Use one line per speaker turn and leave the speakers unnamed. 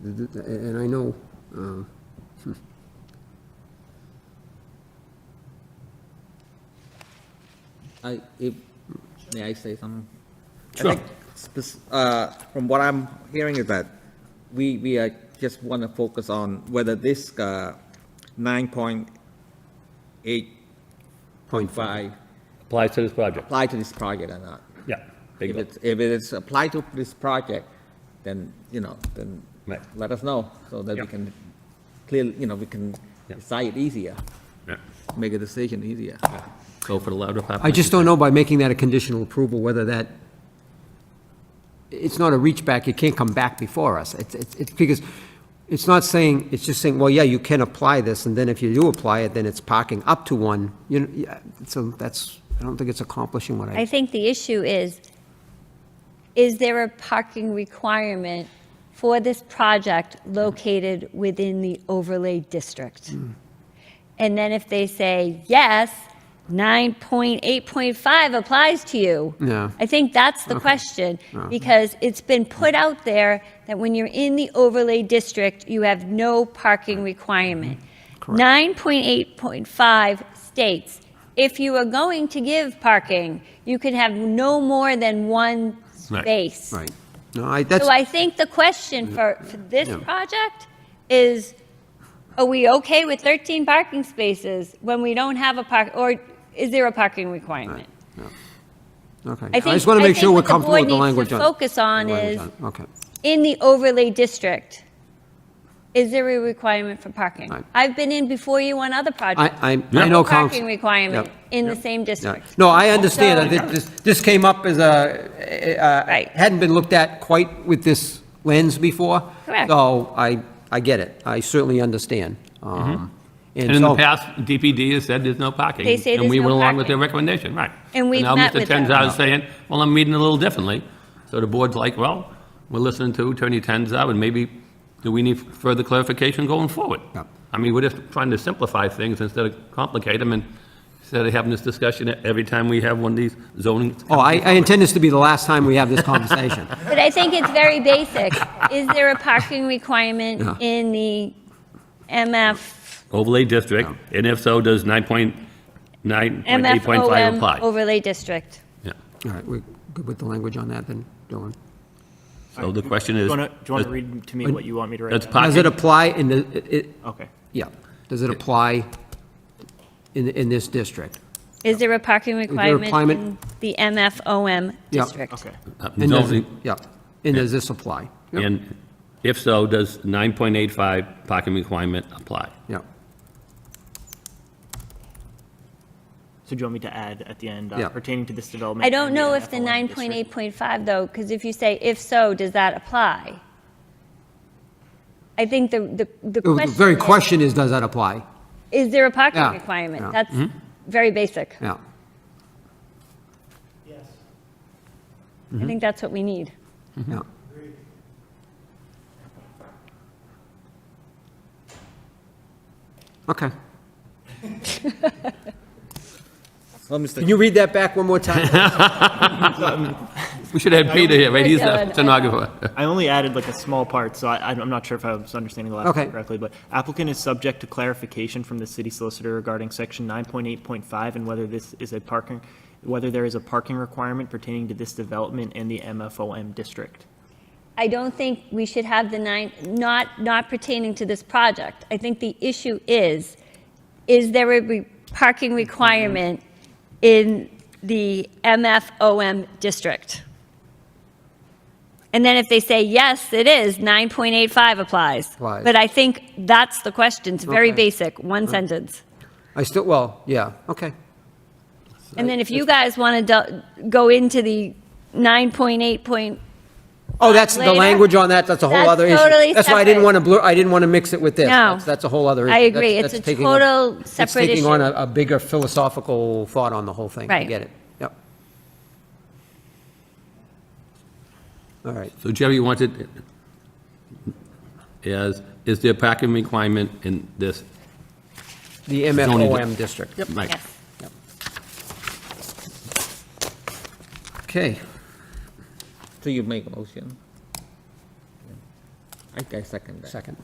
Th- th- And I know, um, hmm.
I, if, may I say something? I
Sure.
think spec- uh, From what I'm hearing is that we, we uh, just want to focus on whether this uh, 9.85
point five.
applies to this project.
apply to this project or not.
Yeah.
If
bingo.
it's, if it's applied to this project, then, you know, then
Right.
let us know so that we
Yeah.
can clearly, you know, we can
Yeah.
decide easier,
Yeah.
make a decision easier.
Go for the louder part.
I just don't know by making that a conditional approval whether that, it's not a reach back, it can't come back before us. It's, it's, it's because, it's not saying, it's just saying, well, yeah, you can apply this, and then if you do apply it, then it's parking up to one, you know, yeah, so that's, I don't think it's accomplishing what
I
I,
think the issue is, is there a parking requirement for this project located within the overlay district? And then if they say, yes, 9.8.5 applies to you.
Yeah.
I think that's the question, because it's been put out there that when you're in the overlay district, you have no
Mm-hmm.
parking requirement. 9.8.5 states, if you are going to give parking, you can have no more than one
Right.
space.
right. No, I, that's,
So I think the question for, for this
Yeah.
project is, are we okay with 13 parking spaces when we don't have a park, or is there a parking requirement?
okay.
I think-
just want to
I
make
think
sure we're
what the
comfortable
board
with the
needs to
language on it.
focus on
The language
is-
on it. Okay,
in the overlay district, is there a requirement for parking?
Right.
I've been in before you on other projects.
I- I'm- I know
No Parking
council-
requirement
Yep.
in the same
yeah.
district.
No, I understand, I
So-
think this, this came up as a,
Right.
hadn't been looked at quite with this lens before.
Correct.
So I, I get it. I certainly understand. Um,
Mm-hmm. And in the
so-
past, DPD has said there's no parking.
They say
And
there's
we
no
went along with their
parking.
recommendation, right.
And we've met with
now
them.
Mr. Tenzar is saying, well, I'm reading it a little differently. So the board's like, well, we're listening to Attorney Tenzar, and maybe do we need further clarification going forward?
Yeah.
I mean, we're just trying to simplify things instead of complicate them, and instead of having this discussion every time we have one of these zoning.
Oh, I, I intend this to be the last time we have this conversation.
But I think it's very basic. Is there a parking requirement
Yeah.
in the MF,
Overlay district, and if so, does 9.9.8.5
MFOM
apply?
overlay district?
Yeah.
All right, we're good with the language on that then, Dylan.
So the question is.
Do you want to read to me what you want me to write?
That's
down?
part-
Does it apply in the, it- it,
Okay.
yeah, does it apply in, in this district?
Is there a parking
there a
requirement
climate-
in the MFOM
Yeah.
district?
Okay.
uh,
And does it-
zoning-
Yeah, and does this apply? Yeah,
And if so, does 9.85 parking requirement apply?
Yeah,
So do you want me to add at the end uh,
Yeah.
pertaining to this development?
I don't
and the
know if the
NFLM district?
9.8.5, though, because if you say, if so, does that apply? I think the, the, the
the
question.
very
is,
question is, does that apply?
Is there a parking
Yeah, yeah. Mm-hmm.
requirement? That's very basic.
Yeah, Mm-hmm.
I think that's what we need.
yeah. Okay.
Well, Mr.
Can you read that back one more time?
We should have Peter here, right? He's the
Good.
stenographer.
I only added like a small part, so I, I'm not sure if I was understanding the last
Okay.
part correctly, but applicant is subject to clarification from the city solicitor regarding section nine point eight point five and whether this is a parking, whether there is a parking requirement pertaining to this development in the MFOM district.
I don't think we should have the nine, not, not pertaining to this project. I think the issue is, is there a re- parking requirement in the MFOM district? And then if they say, yes, it is, 9.85 applies.
Applies.
But I think that's the question, it's very
Okay.
basic, one sentence.
I still, well, yeah, okay.
And then if you guys want to go into the 9.8 point,
Oh, that's the
Later?
language on that, that's a whole
That's
other issue.
totally
That's why I didn't
separate.
want to blur, I didn't want to mix it with this.
No.
That's- That's a whole other issue.
I agree.
That's-
It's a
that's taking on-
total separate
It's taking
issue.
on a, a bigger philosophical thought on the whole thing. I
Right.
get it, yep. All right,
So Jerry you wanted, is, is there parking requirement in this?
the MFOM district.
Mike,
yes.
Okay,
So you make a motion?
I I second that.
Second.